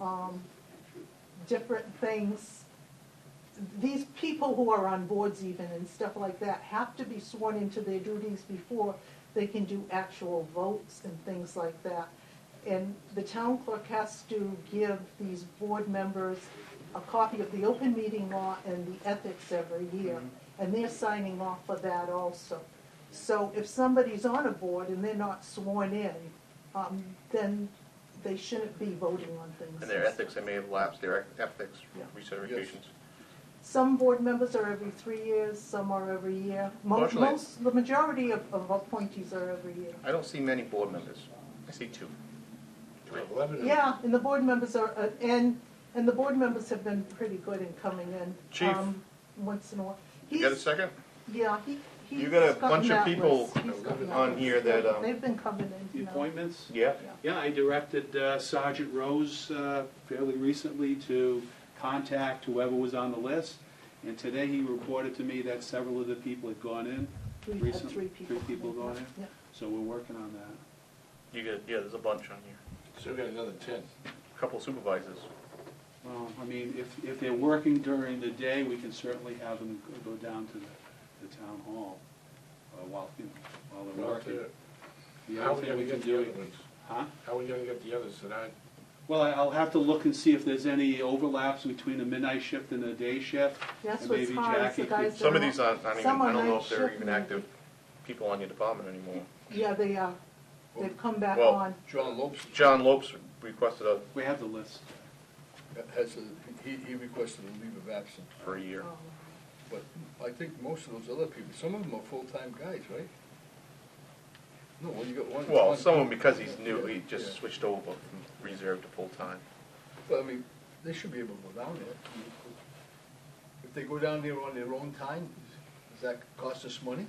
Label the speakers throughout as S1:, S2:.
S1: um, different things. These people who are on boards even and stuff like that have to be sworn into their duties before they can do actual votes and things like that. And the town clerk has to give these board members a copy of the open meeting law and the ethics every year.
S2: Mm-hmm.
S1: And they're signing off for that also. So if somebody's on a board and they're not sworn in, um, then they shouldn't be voting on things.
S2: And their ethics, they may have lapsed their ethics
S1: Yeah.
S2: recertifications.
S1: Some board members are every three years, some are every year. Most,
S2: Fortunately-
S1: most, the majority of, of appointees are every year.
S2: I don't see many board members. I see two.
S3: Lebanon.
S1: Yeah, and the board members are, uh, and, and the board members have been pretty good in coming in.
S2: Chief.
S1: um, Once in a while.
S2: You got a
S1: He's-
S2: second?
S1: Yeah, he, he's.
S2: You got a
S1: gotten
S2: bunch of
S1: that
S2: people
S1: list. He's gotten that
S2: on
S1: list.
S2: here that, um,
S1: They've been coming in,
S4: The
S1: you know.
S4: appointments?
S2: Yeah.
S4: Yeah, I directed uh, Sergeant Rose uh, fairly recently to contact whoever was on the list. And today he reported to me that several of the people had gone in.
S1: We've had
S4: recently.
S1: three people.
S4: Three people
S1: come
S4: gone in,
S1: Yeah.
S4: so we're working on that.
S2: You got, yeah, there's a bunch on here.
S3: So we got another ten.
S2: A Couple supervisors.
S4: Well, I mean, if, if they're working during the day, we can certainly have them go down to the, the town hall uh, while, you know, while they're
S3: How are
S4: working.
S3: we
S4: The other thing
S3: gonna
S4: we can
S3: get the
S4: do,
S3: other ones?
S4: huh?
S3: How are we gonna get the others that aren't?
S4: Well, I- I'll have to look and see if there's any overlaps between the midnight shift and the day shift.
S1: That's
S4: And
S1: what's
S4: maybe
S1: hard, is
S4: Jackie
S1: the
S4: could-
S1: guys that
S2: Some of
S1: are-
S2: these aren't, aren't even,
S1: some are
S2: I don't know
S1: night
S2: if they're
S1: shift
S2: even
S1: and-
S2: active people on your department anymore.
S1: Yeah, they are. They've come back
S2: Well-
S1: on.
S3: John Lopes
S2: John Lopes requested a,
S4: We have the list.
S3: has a, he, he requested a leave of absence,
S2: for a year.
S1: Um,
S3: but I think most of those other people, some of them are full-time guys, right? No, well, you got
S1: Oh.
S3: one.
S2: Well,
S3: one-
S2: someone, because he's new, he
S3: Yeah.
S2: just switched over from reserve to full-time.
S3: But I mean, they should be able to go down there. If they go down there on their own time, does that cost us money?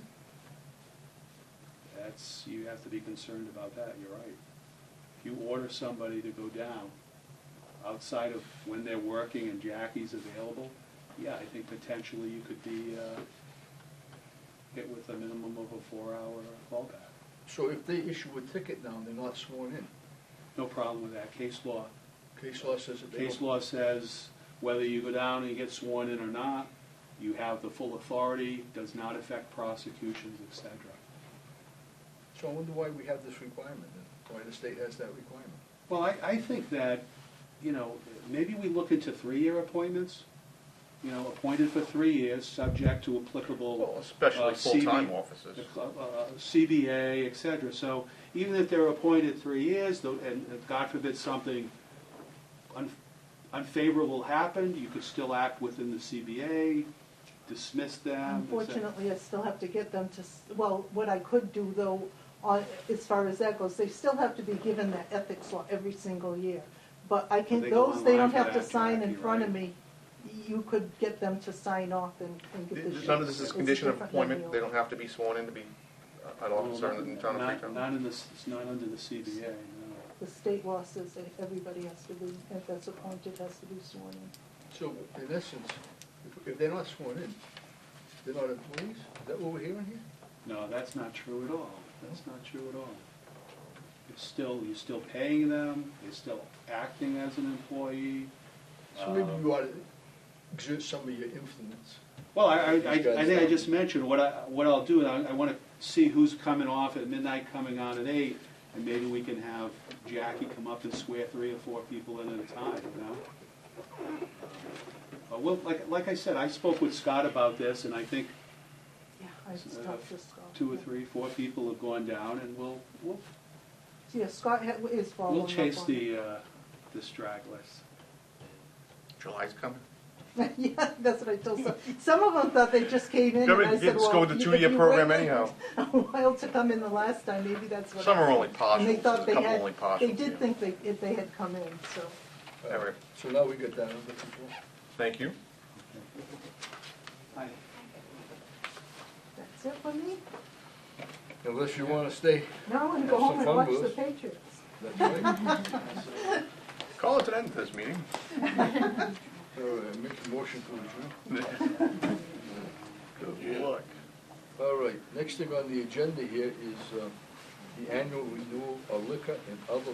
S4: That's, you have to be concerned about that, you're right. If you order somebody to go down outside of when they're working and Jackie's available, yeah, I think potentially you could be uh, hit with a minimum of a four-hour fallback.
S3: So if they issue a ticket now, and they're not sworn in.
S4: No problem with that, case law.
S3: Case law says that they
S4: Case
S3: don't-
S4: law says whether you go down and get sworn in or not, you have the full authority, does not affect prosecutions, et cetera.
S3: So I wonder why we have this requirement, then, why the state has that requirement.
S4: Well, I, I think that, you know, maybe we look into three-year appointments, you know, appointed for three years, subject to
S2: Well,
S4: applicable
S2: especially
S4: uh, CB
S2: full-time officers.
S4: uh, uh, CBA, et cetera. So even if they're appointed three years, though, and uh, God forbid something un- unfavorable happened, you could still act within the CBA, dismiss them. et cetera.
S1: Unfortunately, I still have to get them to, s- well, what I could do though, on, as far as that goes, they still have to be given that ethics law every single year. But I can,
S4: they go
S1: those, they
S4: online
S1: don't
S4: for
S1: have to
S4: that,
S1: sign in
S4: Jackie,
S1: front of
S4: right?
S1: me. You could get them to sign off and, and get the.
S2: Th- None of this is
S1: It's
S2: condition of
S1: different than
S2: appointment,
S1: the
S2: they
S1: old.
S2: don't have to be sworn in to be uh, an officer in the town of
S4: Not- Not
S2: Freetown.
S4: in the, s- it's not under the CBA, no.
S1: The state law says that everybody has to be, if that's appointed, has to be sworn in.
S3: So in essence, if- if they're not sworn in, they're not employees? Is that what we're hearing here?
S4: No, that's not true at all. That's not true at all. It's still, you're still paying them, they're still acting as an employee.
S3: So maybe
S4: Um,
S3: you ought to exert some of your influence.
S4: Well, I, I, I
S3: These guys
S4: I think I
S3: don't.
S4: just mentioned, what I, what I'll do, I, I wanna see who's coming off at midnight, coming on at eight, and maybe we can have Jackie come up and swear three or four people in at a time, you know? But well, like, like I said, I spoke with Scott about this, and I think
S1: Yeah, I just
S4: Uh,
S1: talked to Scott.
S4: two or three, four people have gone down, and we'll, we'll
S1: Yeah, Scott ha- is following
S4: We'll
S1: up
S4: chase
S1: on
S4: the, uh, the stragglers.
S2: July's coming.
S1: it. Yeah, that's what I told some, some of them thought they just came in and
S2: Remember,
S1: I said,
S2: kids
S1: well.
S2: go with the
S1: you-
S2: two-year
S1: if you
S2: program
S1: waited
S2: anyhow.
S1: A while to come in the last time, maybe that's what.
S2: Some are only
S1: And they
S2: partials,
S1: thought
S2: there's a
S1: they
S2: couple
S1: had-
S2: only partials.
S1: They did
S2: yeah.
S1: think they, if they had come in, so.
S2: All right.
S3: Uh, So now we got that under control.
S2: Thank you.
S4: I,
S1: That's it for me.
S3: Unless you want to stay.
S1: Now I'm
S3: Have
S1: going
S3: some
S1: home and
S3: fun,
S1: watch
S3: Bruce.
S1: the Patriots.
S3: That's right.
S2: Call it an end to this meeting.
S3: All right, make a motion to adjourn.
S2: Good luck.
S3: All right, next thing on the agenda here is uh, the annual renewal of liquor and other